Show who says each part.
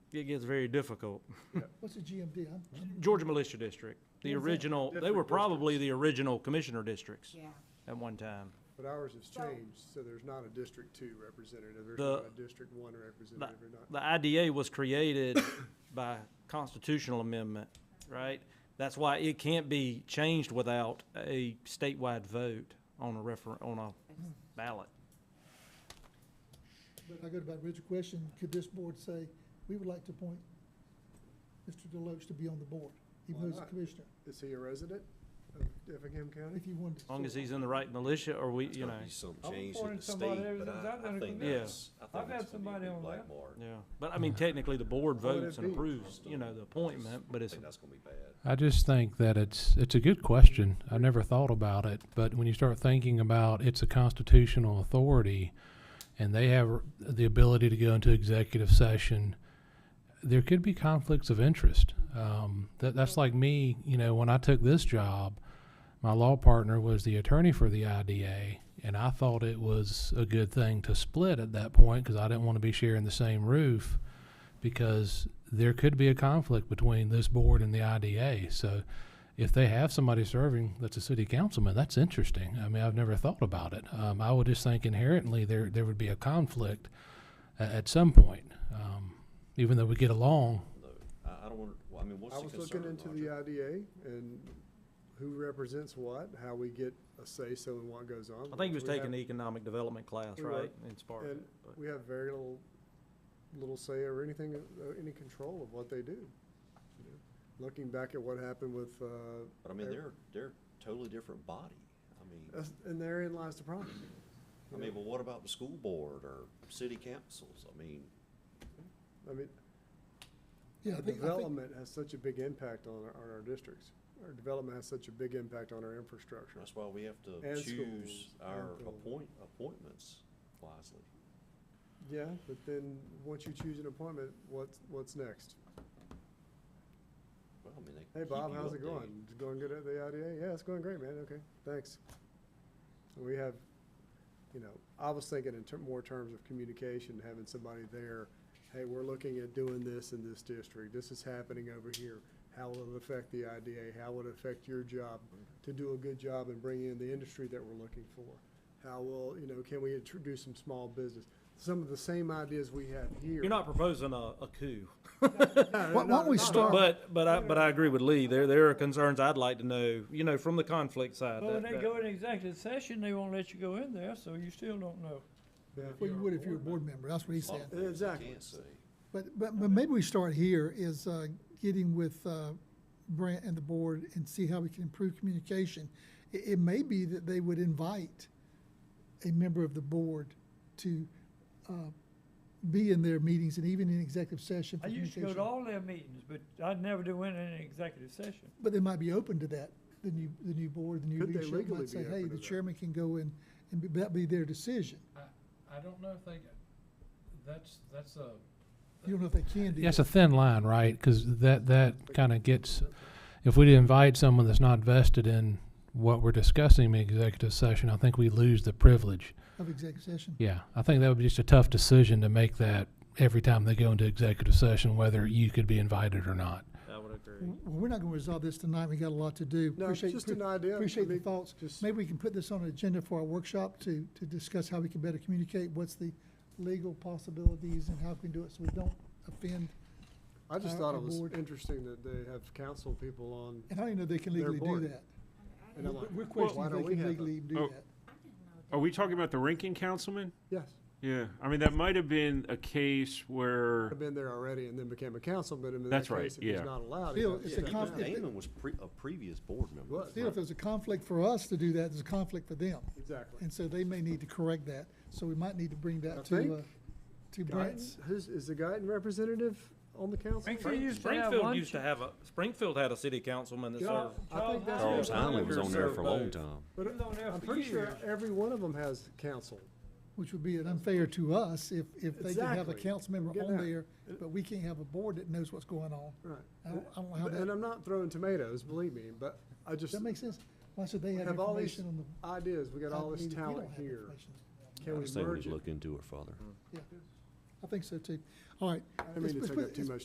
Speaker 1: it gets very difficult.
Speaker 2: What's the GMD? I'm,
Speaker 1: Georgia Militia District, the
Speaker 2: Where's that?
Speaker 1: original, they were
Speaker 3: Different
Speaker 1: probably the original commissioner districts
Speaker 4: Yeah.
Speaker 1: at one time.
Speaker 3: But ours has
Speaker 4: So-
Speaker 3: changed, so there's not a District Two representative, there's
Speaker 1: The-
Speaker 3: not a District One representative, or not.
Speaker 1: The IDA was created by constitutional amendment, right? That's why it can't be changed without a statewide vote on a refer, on a
Speaker 3: Mm-hmm.
Speaker 1: ballot.
Speaker 2: but I go back, Richard's question, could this board say, we would like to appoint Mr. Deloach to be on the board,
Speaker 3: Why
Speaker 2: even though he's a
Speaker 3: not?
Speaker 2: commissioner,
Speaker 3: Is he a resident of Effingham County?
Speaker 2: if you wanted to.
Speaker 1: As long as
Speaker 2: say-
Speaker 1: he's in the right militia or we,
Speaker 5: There's
Speaker 1: you know,
Speaker 5: gotta be Some
Speaker 6: I'm
Speaker 5: change in
Speaker 6: pouring
Speaker 5: the
Speaker 6: somebody
Speaker 5: state,
Speaker 6: ever
Speaker 5: but
Speaker 6: since
Speaker 5: I,
Speaker 6: I've
Speaker 5: I
Speaker 6: been a
Speaker 5: think
Speaker 1: commissioner.
Speaker 5: that's, I
Speaker 6: I've
Speaker 5: think
Speaker 6: had
Speaker 5: that's gonna be a
Speaker 6: somebody
Speaker 5: big
Speaker 6: on
Speaker 5: black
Speaker 6: that.
Speaker 5: mark.
Speaker 1: yeah. But I mean, technically, the board
Speaker 3: Well,
Speaker 1: votes
Speaker 3: it'd
Speaker 1: and
Speaker 3: be-
Speaker 1: approves, you know, the appointment, but
Speaker 5: I
Speaker 1: it's,
Speaker 5: think that's gonna be bad.
Speaker 7: I just think that it's it's a good question. I never thought about it, but when you start thinking about it's a constitutional authority, and they have the ability to go into executive session, there could be conflicts of interest. Um, that that's like me, you know, when I took this job, my law partner was the attorney for the IDA, and I thought it was a good thing to split at that point because I didn't want to be sharing the same roof because there could be a conflict between this board and the IDA. So if they have somebody serving that's a city councilman, that's interesting. I mean, I've never thought about it. Um, I would just think inherently there, there would be a conflict a- at some point. Um, even though we get along,
Speaker 5: No, I, I don't want, well, I mean, what's
Speaker 3: I
Speaker 5: the
Speaker 3: was looking
Speaker 5: concern,
Speaker 3: into the uh,
Speaker 5: Roger?
Speaker 3: IDA and who represents what, how we get a say-so in what goes on.
Speaker 1: I think he was
Speaker 3: because we
Speaker 1: taking the
Speaker 3: have-
Speaker 1: economic development class,
Speaker 3: We were.
Speaker 1: right? In Sparta.
Speaker 3: And
Speaker 1: but-
Speaker 3: we have very little, little say or anything, uh, any control of what they do. you know. Looking back at what happened with, uh,
Speaker 5: But I mean, they're, they're totally different body. I mean,
Speaker 3: that's- and therein lies the problem.
Speaker 5: I mean, but what about the school board or city councils? I mean,
Speaker 3: I mean,
Speaker 2: Yeah, I
Speaker 3: Our
Speaker 2: think- I think-
Speaker 3: development has such a big impact on our, on our districts. Our development has such a big impact on our infrastructure.
Speaker 5: that's why we have
Speaker 3: And
Speaker 5: to choose
Speaker 3: schools,
Speaker 5: our
Speaker 3: and, uh,
Speaker 5: appoint, appointments wisely.
Speaker 3: Yeah, but then, once you choose an appointment, what's, what's next?
Speaker 5: Well, I mean, they
Speaker 3: Hey,
Speaker 5: keep
Speaker 3: Bob,
Speaker 5: you
Speaker 3: how's it
Speaker 5: updated.
Speaker 3: going? Is it Going good at the IDA? Yeah, it's going great, man. Okay, thanks. We have, you know, I was thinking in ter- more terms of communication, having somebody there. Hey, we're looking at doing this in this district. This is happening over here. How will it affect the IDA? How will it affect your job to do a good job and bring in the industry that we're looking for? How will, you know, can we introduce some small business? Some of the same ideas we have here.
Speaker 1: You're not proposing a, a coup.
Speaker 3: No,
Speaker 6: Why-
Speaker 3: no,
Speaker 6: why don't we
Speaker 3: no, no.
Speaker 6: start-
Speaker 1: But, but I, but I agree with Lee. There, there are concerns I'd like to know, you know, from the conflict side.
Speaker 6: But when
Speaker 1: that-
Speaker 6: they
Speaker 1: that-
Speaker 6: go in executive session, they won't let you go in there, so you still don't know.
Speaker 3: Yeah.
Speaker 2: Well, you would if you were a board member, that's what he
Speaker 5: A lot
Speaker 2: said.
Speaker 5: of things you
Speaker 3: Exactly.
Speaker 5: can't say.
Speaker 2: But, but, but maybe we start here is, uh, getting with, uh, Brent and the board and see how we can improve communication. It, it may be that they would invite a member of the board to, uh, be in their meetings and even in executive session for
Speaker 6: I used to go to
Speaker 2: communication.
Speaker 6: all their meetings, but I'd never do in an executive session.
Speaker 2: But they might be open to that, the new, the new board, the new
Speaker 3: Could they
Speaker 2: leadership
Speaker 3: legally
Speaker 2: might
Speaker 3: be
Speaker 2: say,
Speaker 3: open
Speaker 2: hey,
Speaker 3: to
Speaker 2: the
Speaker 3: that?
Speaker 2: chairman can go in and be- that be their decision.
Speaker 8: I don't know if they, that's, that's a,
Speaker 2: You don't know if they can do
Speaker 7: yeah, it's
Speaker 2: that.
Speaker 7: a thin line, right? Because that, that kind of gets, if we invite someone that's not vested in what we're discussing in the executive session, I think we lose the privilege.
Speaker 2: Of executive session.
Speaker 7: Yeah, I think that would be just a tough decision to make that every time they go into executive session, whether you could be invited or not.
Speaker 1: I would agree.
Speaker 2: Well, we're not gonna resolve this tonight, we got a lot to do.
Speaker 3: No, it's
Speaker 2: Appreciate-
Speaker 3: just an idea. I
Speaker 2: Appreciate the
Speaker 3: mean,
Speaker 2: thoughts.
Speaker 3: just-
Speaker 2: Maybe we can put this on an agenda for our workshop to, to discuss how we can better communicate, what's the legal possibilities and how we can do it so we don't offend.
Speaker 3: I just
Speaker 2: Uh,
Speaker 3: thought it
Speaker 2: the
Speaker 3: was
Speaker 2: board-
Speaker 3: interesting that they have council people on,
Speaker 2: And I don't even know if they can
Speaker 3: Their
Speaker 2: legally do
Speaker 3: board.
Speaker 2: that.
Speaker 3: and I'm like,
Speaker 2: We're
Speaker 3: why
Speaker 2: questioning
Speaker 3: don't
Speaker 2: if
Speaker 3: we
Speaker 2: they can
Speaker 3: have them?
Speaker 2: legally do
Speaker 8: Oh.
Speaker 2: that.
Speaker 8: Are we talking about the ranking councilman?
Speaker 3: Yes,
Speaker 8: Yeah, I mean, that might have been a case where,
Speaker 3: I've been there already and then became a councilman, and in that
Speaker 8: That's right,
Speaker 3: case, if he's
Speaker 8: yeah.
Speaker 3: not allowed. he
Speaker 2: Still,
Speaker 3: got
Speaker 2: it's
Speaker 3: shut
Speaker 2: a
Speaker 5: Yeah,
Speaker 3: down.
Speaker 2: conf-
Speaker 5: Even Damon was pre, a previous board member.
Speaker 3: Was.
Speaker 2: Still, if there's a conflict for us to do that, there's a conflict for them.
Speaker 3: Exactly.
Speaker 2: And so they may need to correct that. So we might need to bring
Speaker 3: I
Speaker 2: that
Speaker 3: think
Speaker 2: to, uh, to Brent.
Speaker 3: Guyton? Who's, is the Guyton representative on the council?
Speaker 6: Frankfurt used to have
Speaker 1: Springfield
Speaker 6: one
Speaker 1: used to have a, Springfield had a city councilman that
Speaker 3: Yeah,
Speaker 1: served.
Speaker 3: I think that's.
Speaker 5: Charles
Speaker 3: what-
Speaker 5: Heinley was on there for a long
Speaker 6: Both.
Speaker 5: time.
Speaker 3: But
Speaker 6: He was on there
Speaker 3: I'm
Speaker 6: for
Speaker 3: pretty sure
Speaker 6: years.
Speaker 3: every one of them has council.
Speaker 2: Which would be an unfair to us if, if they can have a
Speaker 3: Exactly.
Speaker 2: council member
Speaker 3: Get
Speaker 2: on
Speaker 3: that.
Speaker 2: there, but we can't have a board that knows what's going on.
Speaker 3: Right.
Speaker 2: I don't, I don't know how
Speaker 3: But- And
Speaker 2: that,
Speaker 3: I'm not throwing tomatoes, believe me, but I just,
Speaker 2: that makes sense. Why should they
Speaker 3: we
Speaker 2: have
Speaker 3: have all these
Speaker 2: information on the?
Speaker 3: ideas, we got all
Speaker 2: I
Speaker 3: this
Speaker 2: mean, we don't
Speaker 3: talent
Speaker 2: have
Speaker 3: here.
Speaker 2: information.
Speaker 3: Can
Speaker 5: I
Speaker 3: we
Speaker 5: just think we
Speaker 3: merge
Speaker 5: need
Speaker 3: it?
Speaker 5: to look into it further.
Speaker 2: I think so too. All right.
Speaker 3: I didn't mean to take up too much